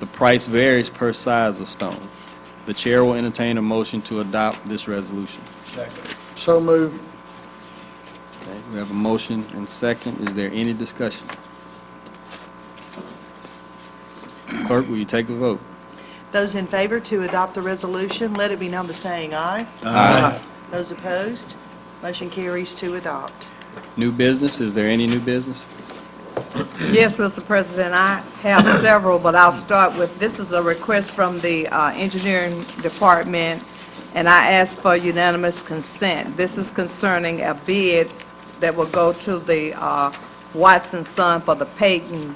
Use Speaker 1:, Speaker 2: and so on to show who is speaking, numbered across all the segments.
Speaker 1: The price varies per size of stone. The chair will entertain a motion to adopt this resolution.
Speaker 2: So move.
Speaker 1: Okay, We have a motion and second. Is there any discussion? Clerk, will you take the vote?
Speaker 3: Those in favor to adopt the resolution, let it be known by saying aye.
Speaker 1: Aye.
Speaker 3: Those opposed, motion carries to adopt.
Speaker 1: New business, is there any new business?
Speaker 4: Yes, Mr. President, I have several, but I'll start with, this is a request from the uh, Engineering Department, and I ask for unanimous consent. This is concerning a bid that will go to the uh, Watson Son for the Peyton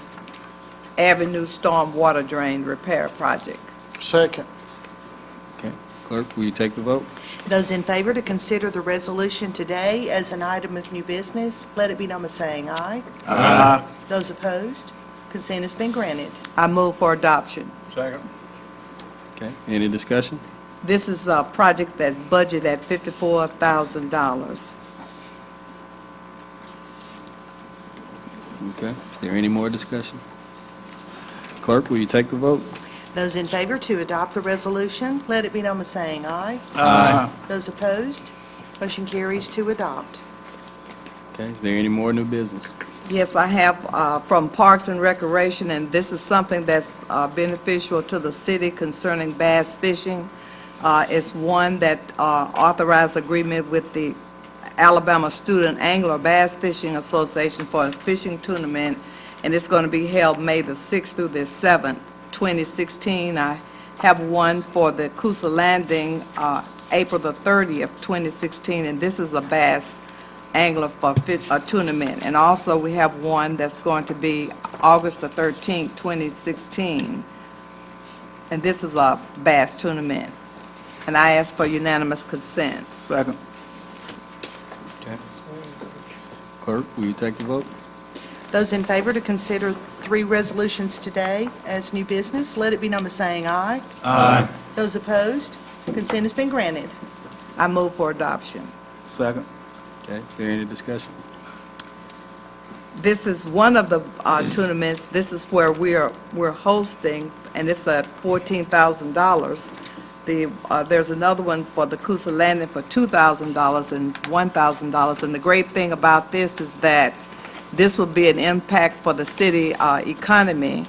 Speaker 4: Avenue Stormwater Drain Repair Project.
Speaker 2: Second.
Speaker 1: Okay, clerk, will you take the vote?
Speaker 3: Those in favor to consider the resolution today as an item of new business, let it be known by saying aye.
Speaker 2: Aye.
Speaker 3: Those opposed, consent has been granted.
Speaker 4: I move for adoption.
Speaker 2: Second.
Speaker 1: Okay, any discussion?
Speaker 4: This is a project that budget at $54,000.
Speaker 1: Okay, is there any more discussion? Clerk, will you take the vote?
Speaker 3: Those in favor to adopt the resolution, let it be known by saying aye.
Speaker 2: Aye.
Speaker 3: Those opposed, motion carries to adopt.
Speaker 1: Okay, is there any more new business?
Speaker 4: Yes, I have uh, from Parks and Recreation, and this is something that's uh, beneficial to the city concerning bass fishing. Uh, It's one that uh, authorized agreement with the Alabama Student Angler Bass Fishing Association for a fishing tournament, and it's going to be held May the 6th through the 7th, 2016. I have one for the Coosa Landing, uh, April the 30th, 2016, and this is a bass angler for fi- a tournament. And also, we have one that's going to be August the 13th, 2016. And this is a bass tournament. And I ask for unanimous consent.
Speaker 2: Second.
Speaker 1: Okay. Clerk, will you take the vote?
Speaker 3: Those in favor to consider three resolutions today as new business, let it be known by saying aye. Aye. Those opposed, consent has been granted.
Speaker 4: I move for adoption.
Speaker 2: Second.
Speaker 1: Okay, is there any discussion?
Speaker 4: This is one of the uh, tournaments, this is where we are, we're hosting, and it's at $14,000. The, uh, there's another one for the Coosa Landing for $2,000 and $1,000. And the great thing about this is that this will be an impact for the city uh, economy.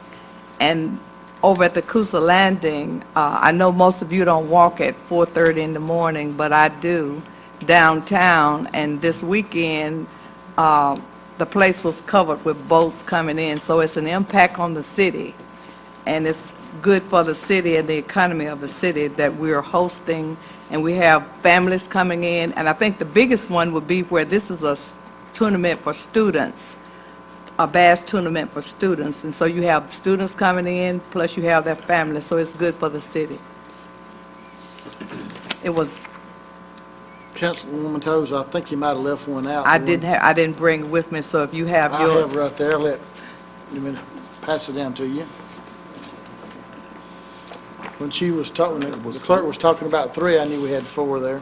Speaker 4: And over at the Coosa Landing, uh, I know most of you don't walk at 4:30 in the morning, but I do downtown. And this weekend, uh, the place was covered with boats coming in, so it's an impact on the city. And it's good for the city and the economy of the city that we're hosting, and we have families coming in. And I think the biggest one would be where this is a s- tournament for students, a bass tournament for students. And so you have students coming in, plus you have their families, so it's good for the city. It was,
Speaker 2: Councilwoman Toles, I think you might have left one out.
Speaker 4: I didn't have, I didn't bring it with me, so if you have
Speaker 2: I
Speaker 4: yours.
Speaker 2: have right there. Let, let me pass it down to you. When she was talking, the clerk was talking about three, I knew we had four there.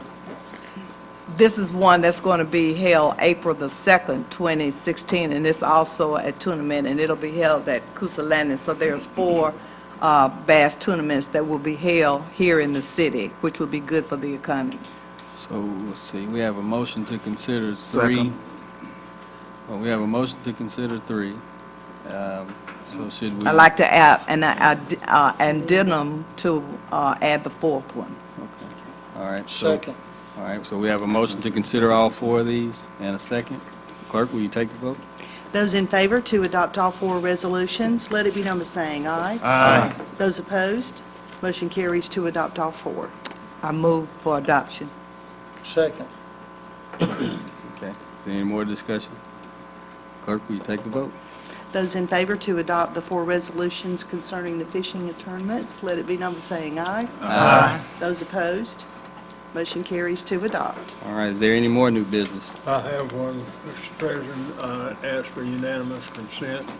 Speaker 4: This is one that's going to be held April the 2nd, 2016, and it's also a tournament, and it'll be held at Coosa Landing. So there's four uh, bass tournaments that will be held here in the city, which will be good for the economy.
Speaker 1: So, let's see, we have a motion to consider three.
Speaker 2: Second.
Speaker 1: Well, we have a motion to consider three. Um, So should we?
Speaker 4: I'd like to add an ad- uh, addendum to uh, add the fourth one.
Speaker 1: Okay. All right. so-
Speaker 2: Second.
Speaker 1: All right, so we have a motion to consider all four of these and a second. Clerk, will you take the vote?
Speaker 3: Those in favor to adopt all four resolutions, let it be known by saying aye. Aye. Those opposed, motion carries to adopt all four.
Speaker 4: I move for adoption.
Speaker 2: Second.
Speaker 1: Okay. Is there Any more discussion? Clerk, will you take the vote?
Speaker 3: Those in favor to adopt the four resolutions concerning the fishing tournaments, let it be known by saying aye. Aye. Those opposed, motion carries to adopt.
Speaker 1: All right, is there any more new business?
Speaker 5: I have one, Mr. President, uh, ask for unanimous consent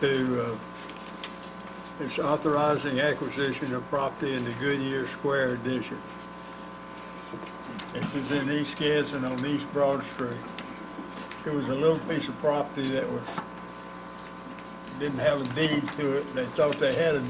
Speaker 5: to, uh, it's authorizing acquisition of property in the Goodyear Square addition. This is in East Gadsden on East Broad Street. It was a little piece of property that was, didn't have a deed to it, and they thought they had a